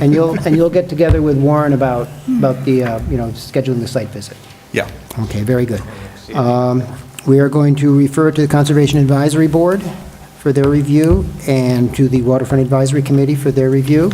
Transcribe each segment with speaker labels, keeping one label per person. Speaker 1: And you'll, and you'll get together with Warren about, about the, uh, you know, scheduling the site visit.
Speaker 2: Yeah.
Speaker 1: Okay, very good. Um, We are going to refer to the Conservation Advisory Board for their review and to the Waterfront Advisory Committee for their review.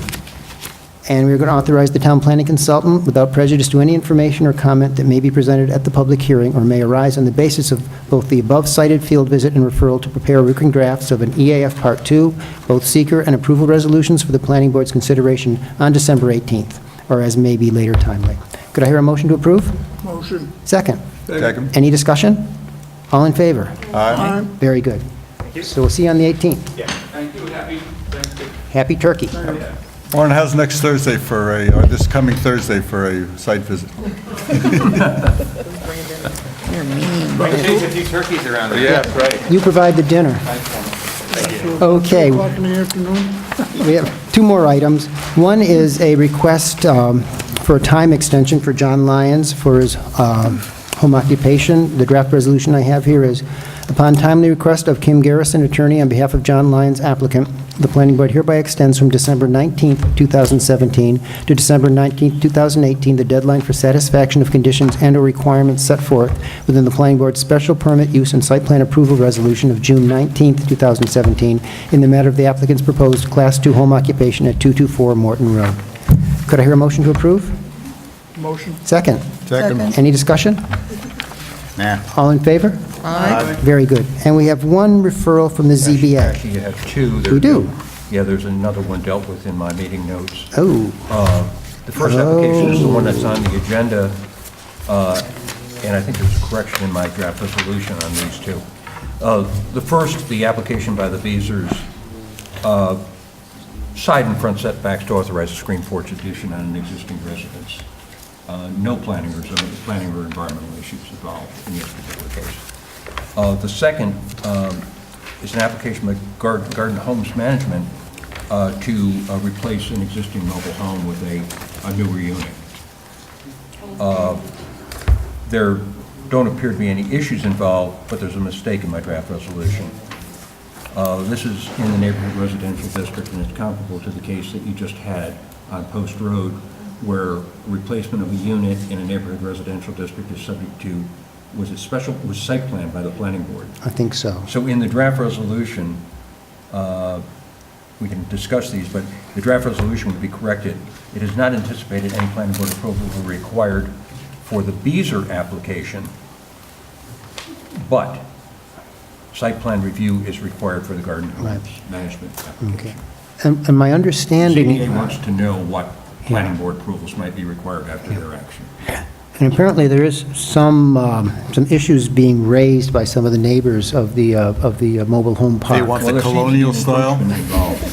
Speaker 1: And we're going to authorize the town planning consultant without prejudice to any information or comment that may be presented at the public hearing or may arise on the basis of both the above-cited field visit and referral to prepare working drafts of an EAF Part 2, both seeker and approval resolutions for the planning board's consideration on December 18th, or as may be later timely. Could I hear a motion to approve?
Speaker 3: Motion.
Speaker 1: Second?
Speaker 2: Second.
Speaker 1: Any discussion? All in favor? Very good. So we'll see you on the 18th.
Speaker 4: Thank you, happy Thanksgiving.
Speaker 1: Happy turkey.
Speaker 2: Warren, how's next Thursday for a, or this coming Thursday for a site visit?
Speaker 4: Bring a few turkeys around. Yeah, right.
Speaker 1: You provide the dinner. Okay.
Speaker 3: O'clock in the afternoon?
Speaker 1: We have two more items. One is a request um, for a time extension for John Lyons for his um, home occupation. The draft resolution I have here is, upon timely request of Kim Garrison, attorney, on behalf of John Lyons applicant, the planning board hereby extends from December 19th, 2017 to December 19th, 2018, the deadline for satisfaction of conditions and/or requirements set forth within the planning board's special permit use and site plan approval resolution of June 19th, 2017, in the matter of the applicant's proposed Class II home occupation at 224 Morton Road. Could I hear a motion to approve?
Speaker 3: Motion.
Speaker 1: Second.
Speaker 2: Second.
Speaker 1: Any discussion?
Speaker 2: Nah.
Speaker 1: All in favor? Aye. Very good. And we have one referral from the ZBA.
Speaker 5: Actually, you have two. There-
Speaker 1: We do.
Speaker 5: Yeah, there's another one dealt with in my meeting notes.
Speaker 1: Oh,
Speaker 5: Uh, The first application is the one that's on the agenda, uh, and I think there's a correction in my draft resolution on these two. Uh, The first, the application by the Beazers, uh, side and front setbacks to authorize a screen porch addition on an existing residence. Uh, No planning or zoning, planning or environmental issues involved in this particular case. Uh, The second um, is an application by Gar- Garden Homes Management uh, to uh, replace an existing mobile home with a, a newer unit. Uh, There don't appear to be any issues involved, but there's a mistake in my draft resolution. Uh, This is in the neighborhood residential district, and it's comparable to the case that you just had on Post Road, where replacement of a unit in a neighborhood residential district is subject to, was it special, was site plan by the planning board.
Speaker 1: I think so.
Speaker 5: So in the draft resolution, uh, we can discuss these, but the draft resolution would be corrected. It is not anticipated any planning board approval will be required for the Beezer application, but site plan review is required for the garden
Speaker 1: Right.
Speaker 5: management
Speaker 1: Okay.
Speaker 5: application.
Speaker 1: And and my understanding...
Speaker 5: CDA wants to know what planning board approvals might be required after their action.
Speaker 1: And apparently, there is some, um, some issues being raised by some of the neighbors of the, uh, of the uh, mobile home park.
Speaker 2: want-
Speaker 5: Well,
Speaker 2: the
Speaker 5: there's CDA
Speaker 2: colonial style?
Speaker 5: encroachment involved.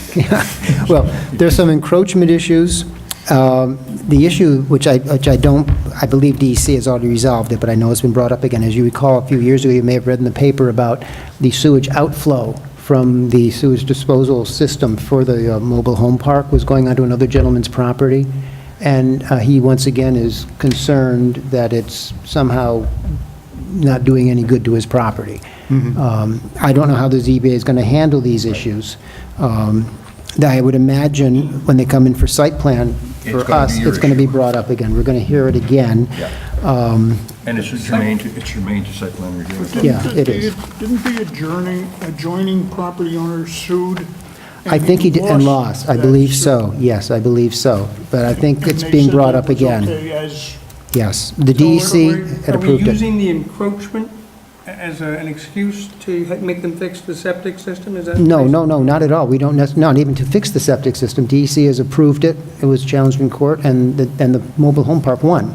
Speaker 1: Well, there's some encroachment issues. Um, The issue, which I, which I don't, I believe DEC has already resolved it, but I know it's been brought up again. As you recall, a few years ago, you may have read in the paper about the sewage outflow from the sewage disposal system for the uh, mobile home park was going onto another gentleman's property. And uh, he, once again, is concerned that it's somehow not doing any good to his property.
Speaker 5: Mm-hmm.
Speaker 1: Um, I don't know how the ZBA is going to handle these issues. Um, I would imagine when they come in for site plan,
Speaker 5: It's
Speaker 1: for
Speaker 5: gonna
Speaker 1: us,
Speaker 5: be your
Speaker 1: it's going to be
Speaker 5: issue.
Speaker 1: brought up again. We're going to hear it again.
Speaker 5: Yeah.
Speaker 1: Um,
Speaker 5: And it's germane to, it's germane to site plan review.
Speaker 1: Yeah, it is.
Speaker 3: Didn't the adjourning, adjoining property owner sued?
Speaker 1: I think he did, and lost, I
Speaker 3: that
Speaker 1: believe
Speaker 3: suit?
Speaker 1: so. Yes, I believe so. But I think
Speaker 3: uh, And
Speaker 1: it's
Speaker 3: they
Speaker 1: being
Speaker 3: said
Speaker 1: brought
Speaker 3: that
Speaker 1: up
Speaker 3: was
Speaker 1: again.
Speaker 3: okay as-
Speaker 1: Yes, the
Speaker 6: So are we-
Speaker 1: DEC had approved
Speaker 6: Are we
Speaker 1: it.
Speaker 6: using the encroachment a- as a- an excuse to ha- make them fix the septic system? Is that?
Speaker 1: No, no, no, not at all. We don't, nec- not even to fix the septic system. DEC has approved it. It was challenged in court, and the, and the mobile home park won.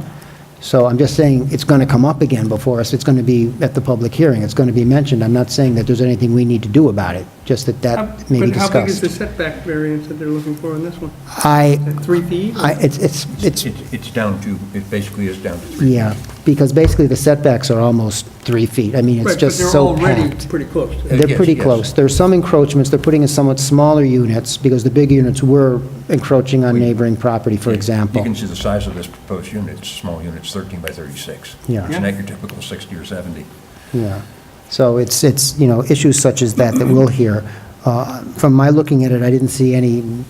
Speaker 1: So I'm just saying, it's going to come up again before us. It's going to be at the public hearing. It's going to be mentioned. I'm not saying that there's anything we need to do about it, just that
Speaker 6: How-
Speaker 1: that may be
Speaker 6: But how big is the
Speaker 1: discussed.
Speaker 6: setback variance that they're looking for in this one?
Speaker 1: I,
Speaker 6: Is that three feet?
Speaker 1: I, it's, it's,
Speaker 5: It's,
Speaker 1: it's,
Speaker 5: it's down to, it basically is down to three.
Speaker 1: yeah, because basically the setbacks are almost three feet. I mean,
Speaker 6: Right,
Speaker 1: it's
Speaker 6: but
Speaker 1: just
Speaker 6: they're
Speaker 1: so
Speaker 6: already
Speaker 1: packed.
Speaker 6: Pretty close.
Speaker 1: They're
Speaker 5: Yes,
Speaker 1: pretty
Speaker 5: yes.
Speaker 1: close. There's some encroachments, they're putting in somewhat smaller units, because the big units were encroaching on neighboring property, for
Speaker 5: You
Speaker 1: example.
Speaker 5: can see the size of this proposed unit, it's a small unit, it's 13 by 36.
Speaker 1: Yeah.
Speaker 5: It's not your typical 60 or 70.
Speaker 1: Yeah. So it's, it's, you know, issues such as that that we'll hear. Uh, From my looking at it, I didn't see any